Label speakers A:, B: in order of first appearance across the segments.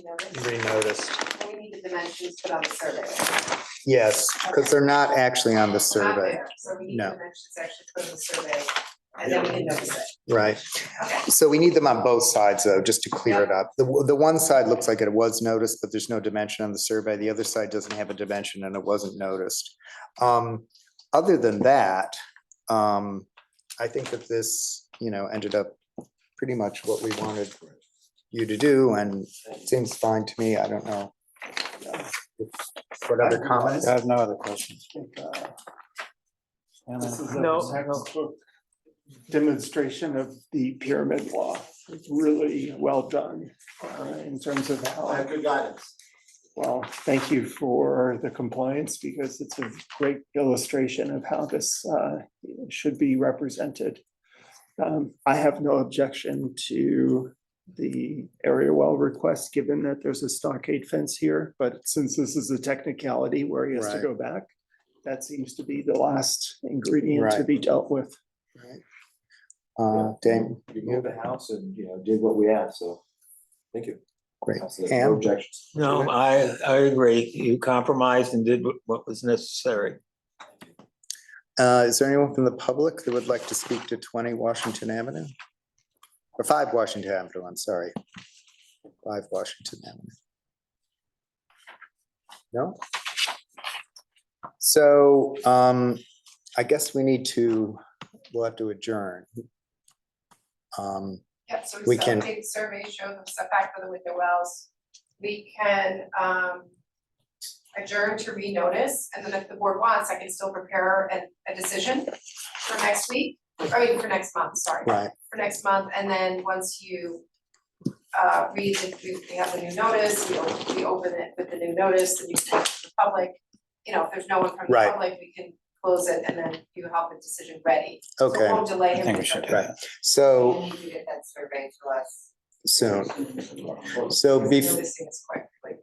A: renotice.
B: renoticed.
A: We need the dimensions put on the survey.
C: Yes, because they're not actually on the
A: We're not
C: survey,
A: there, So we need
C: No.
A: the dimensions actually put on the survey, and then we can notice it.
C: right?
A: Okay.
C: So we need them on both sides, though, just to clear it up. The, the one side looks like it was noticed, but there's no dimension on the survey. The other side doesn't have a dimension and it wasn't noticed. Um, other than that, um, I think that this, you know, ended up pretty much what we wanted you to do and it seems fine to me. I don't know. What other comments?
D: I have no other questions. No.
E: textbook demonstration of the pyramid law. It's Really well done uh, in terms of how,
D: good guidance.
E: well, thank you for the compliance because it's a great illustration of how this uh, should be represented. Um, I have no objection to the area well request, given that there's a stockade fence here, but since this is a technicality where he has to
C: Right.
E: go back, that seems to be the last ingredient to
C: Right.
E: be dealt with.
C: Uh, Dame,
F: You moved the house and, you know, did what we asked, so, thank you.
C: great.
F: That's it. No
C: Pam?
F: objections.
B: No, uh, I, I agree. You compromised and did what- what was necessary.
C: Uh, Is there anyone from the public that would like to speak to 20 Washington Avenue? Or 5 Washington Avenue, I'm sorry. 5 Washington Avenue. No? So um, I guess we need to, we'll have to adjourn. Um,
A: Yep, so
C: We
A: we still
C: can-
A: take the survey, show them setback for the window wells. We can um adjourn to renotice, and then if the board wants, I can still prepare a a decision for next week, or I mean, for next month, sorry,
C: Right,
A: for next month, and then once you uh read, the we we have the new notice, we open, we open it with the new notice, and you send it to the public. You know, if there's no one from the
C: Right.
A: public, we can close it, and then you have the decision ready. So
C: okay,
A: we'll delay him.
D: I think we
A: with
D: should
A: the-
D: do that.
C: so
A: we need to get that survey to us.
C: soon. So bef-
A: Noticing it's quick, like,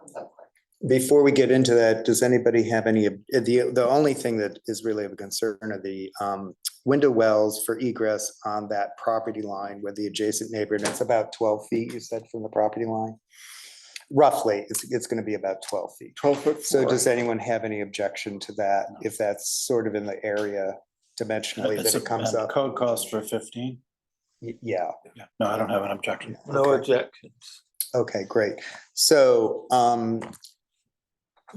A: comes up quick.
C: Before we get into that, does anybody have any, ob- uh, the, the only thing that is really of concern are the um, window wells for egress on that property line with the adjacent neighbor, and it's about 12 feet, you said, from the property line? Roughly, it's, it's going to be about 12 feet.
E: Twelve foot.
C: So
E: four.
C: does anyone have any objection to that, if that's sort of in the area dimensionally that
D: It's
C: it comes
D: a-
C: up?
D: Code calls for fifteen.
C: Y- Yeah.
D: Yeah. No, I don't have an objection.
B: No
C: Okay.
B: objections.
C: Okay, great. So um,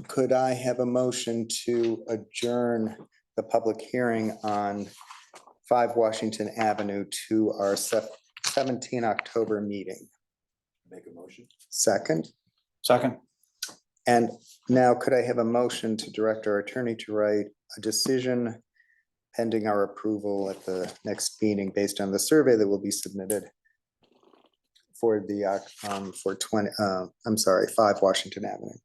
C: could I have a motion to adjourn the public hearing on five Washington Avenue to our sep- seventeen October meeting?
F: Make a motion.
C: Second,
D: Second,
C: and now could I have a motion to direct our attorney to write a decision pending our approval at the next meeting based on the survey that will be submitted for the, oc- um, for twenty, uh, I'm sorry, five Washington Avenue?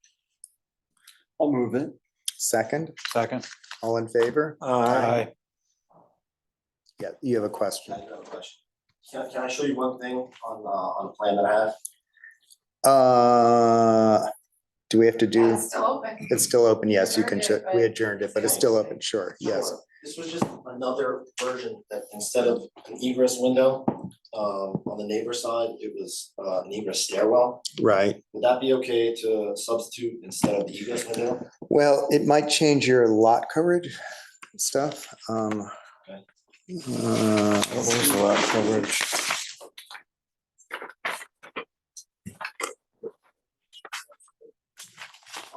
E: I'll move it.
C: Second,
D: second.
C: all in favor?
B: Aye.
C: Yeah, you have a question.
G: I do have a question. Can, can I show you one thing on, uh, on the plan that I have?
C: Uh, do we have to
A: Yeah,
C: do,
A: it's still open.
C: it's still open, yes, you can,
A: Adjourned it,
C: ch- we adjourned it, but it's still open, sure, yes.
G: Sure. This was just another version that instead of an egress window, um, on the neighbor side, it was, uh, an egress stairwell.
C: Right,
G: Would that be okay to substitute instead of the egress window?
C: well, it might change your lot coverage stuff, um.
G: Okay.
C: uh,
D: What was the lot coverage?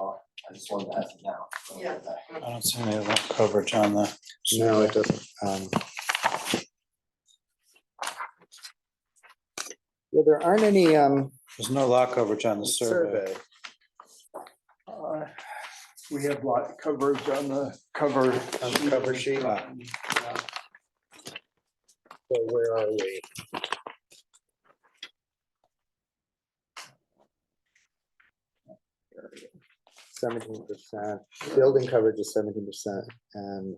G: I just wanted to ask you now.
A: Yeah.
D: I don't see any lot coverage on the.
C: No, it doesn't, um. Yeah, there aren't any, um,
D: There's no lot coverage on the survey.
C: survey,
E: Uh, We have lot coverage on the cover.
C: On the cover sheet.
E: Um, yeah.
C: so where are we? Seventeen percent, building coverage is seventeen percent and.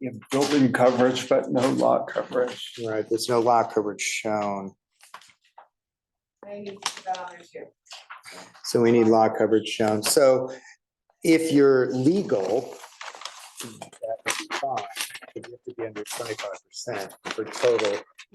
E: You have building coverage, but no lot coverage.
C: Right, there's no lot coverage shown,
A: I need to put that on there too.
C: so we need lot coverage shown, so if you're legal. that would be fine. If you have to be be under twenty-five percent for total